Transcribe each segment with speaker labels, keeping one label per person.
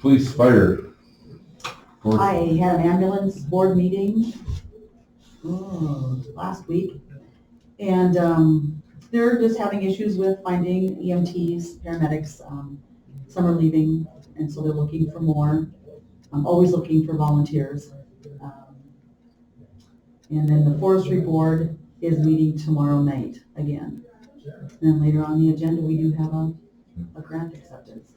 Speaker 1: Police, fire. Board-
Speaker 2: I had an ambulance board meeting, oh, last week. And, um, they're just having issues with finding EMTs, paramedics, um, some are leaving, and so they're looking for more. I'm always looking for volunteers. Um, And then the forestry board is meeting tomorrow night again. And then later on the agenda, we do have a, a grant acceptance.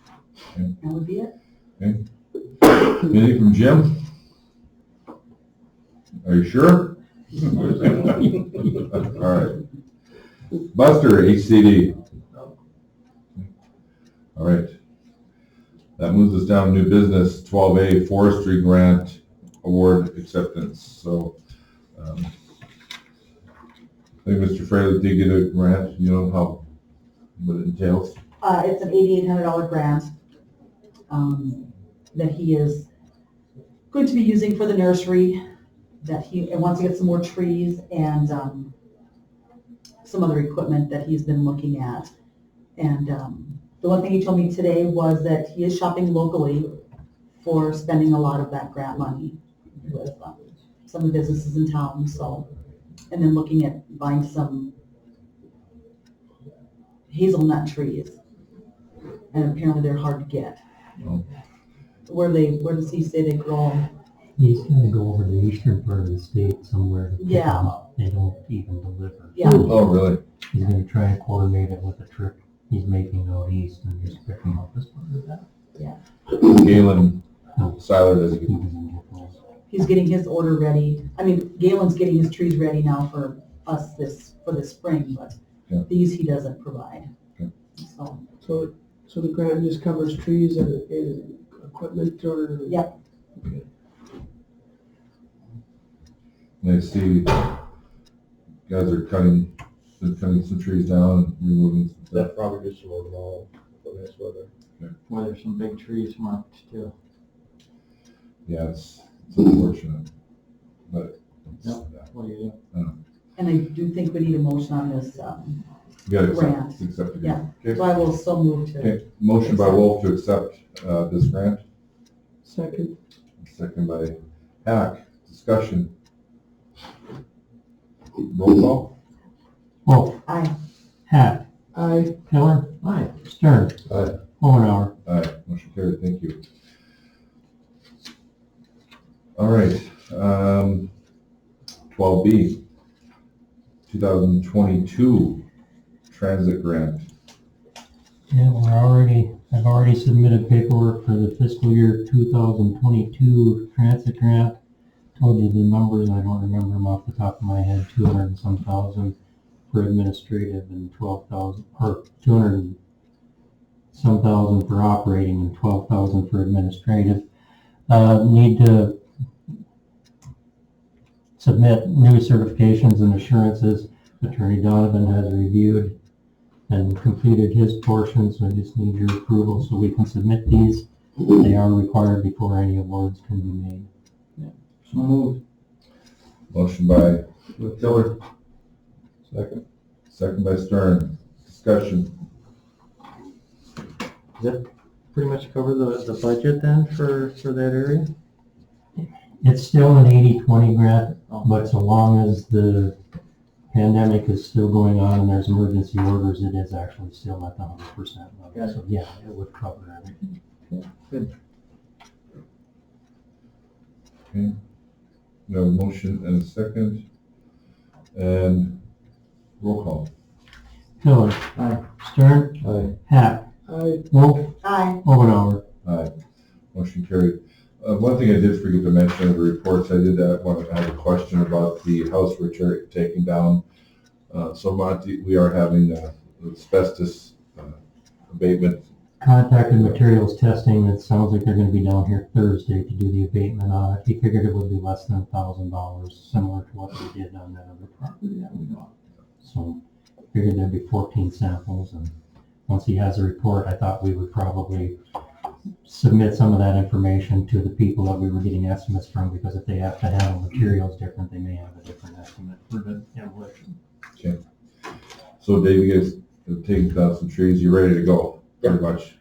Speaker 1: Okay.
Speaker 2: That would be it.
Speaker 1: Anything from Jim? Are you sure? Alright. Buster, HCD. Alright. That moves us down to new business, twelve A forestry grant award acceptance, so. um, I think Mr. Fraley did get a grant, you know how, what it entails.
Speaker 2: Uh, it's an eighty-eight hundred dollar grant, um, that he is going to be using for the nursery, that he, and wants to get some more trees and, um, some other equipment that he's been looking at. And, um, the one thing he told me today was that he is shopping locally for spending a lot of that grant money with, um, some of the businesses in town, so, and then looking at buying some hazelnut trees and apparently they're hard to get.
Speaker 1: Oh.
Speaker 2: Where they, where does he say they grow?
Speaker 3: He's gonna go over to the eastern part of the state somewhere. to pick 'em
Speaker 2: Yeah.
Speaker 3: up. They don't even deliver.
Speaker 2: Yeah.
Speaker 1: Oh, really?
Speaker 3: He's gonna try and coordinate it with a trip he's making out east and just pick them up as part of that.
Speaker 1: Galen
Speaker 3: No,
Speaker 1: Siler doesn't
Speaker 3: he
Speaker 1: get
Speaker 3: doesn't get those.
Speaker 2: He's getting his order ready. I mean, Galen's getting his trees ready now for us this, for the spring, but
Speaker 1: Yeah.
Speaker 2: these he doesn't provide.
Speaker 1: Okay.
Speaker 2: So,
Speaker 4: So, so the grant just covers trees and, and equipment or?
Speaker 2: Yeah.
Speaker 1: And I see guys are cutting, they're cutting some trees down and removing some stuff.
Speaker 5: That probably gets mowed all for this weather.
Speaker 3: Well, there's some big trees marked too.
Speaker 1: Yeah, it's, it's unfortunate, but it's,
Speaker 3: Yep.
Speaker 1: yeah,
Speaker 3: What do you
Speaker 2: and I do think we need a motion on this, um,
Speaker 1: you gotta accept,
Speaker 2: Grant.
Speaker 1: accept it.
Speaker 2: Yeah. so
Speaker 1: Okay,
Speaker 2: I will so move to.
Speaker 1: okay, motion by Wolf to accept, uh, this grant,
Speaker 4: Second,
Speaker 1: second by Hack, discussion. Roll call?
Speaker 3: Wolf,
Speaker 2: Aye,
Speaker 3: Hack,
Speaker 4: I,
Speaker 3: Pillar. Aye. Stern.
Speaker 1: Aye.
Speaker 3: Hohenhour.
Speaker 1: Aye, motion carried, thank you. All right, um, twelve B, two thousand twenty-two transit grant.
Speaker 3: Yeah, we're already, I've already submitted paperwork for the fiscal year two thousand twenty-two transit grant. Told you the numbers, I don't remember them off the top of my head, two hundred and some thousand for administrative and twelve thousand, or two hundred and some thousand for operating and twelve thousand for administrative. Uh, need to submit new certifications and assurances. Attorney Donovan has reviewed and completed his portion, so I just need your approval so we can submit these. They are required before any awards can be made.
Speaker 1: So moved. Motion by Tiller. Second. Second by Stern. Discussion.
Speaker 3: Pretty much cover the, the budget then for, for that area? It's still an 80-20 grant, but so long as the pandemic is still going on and there's emergency orders, it is actually still at the 100% level. So yeah, it would cover everything.
Speaker 1: Okay. We have a motion and a second. And roll call.
Speaker 3: Pillar. Stern.
Speaker 1: Aye.
Speaker 3: Hack.
Speaker 4: I,
Speaker 3: Wolf.
Speaker 2: aye,
Speaker 3: Omenauer.
Speaker 1: Aye. uh, Motion carried. Uh, one thing I did forget to mention in the reports, I did uh, want to have a question about the house we're tear- taking down. Uh, so Monty, we are having uh, asbestos uh, abatement
Speaker 3: contacted materials testing, it sounds like they're gonna be down here Thursday to do the abatement on it. He figured it would be less than a thousand dollars, similar to what we did on that other property that we bought. So figured there'd be fourteen samples and once he has a report, I thought we would probably submit some of that information to the people that we were getting estimates from because if they have to handle materials different, they may have a different estimate for the demolition.
Speaker 1: So Dave, you guys have taken down some trees, you're ready to go, pretty much.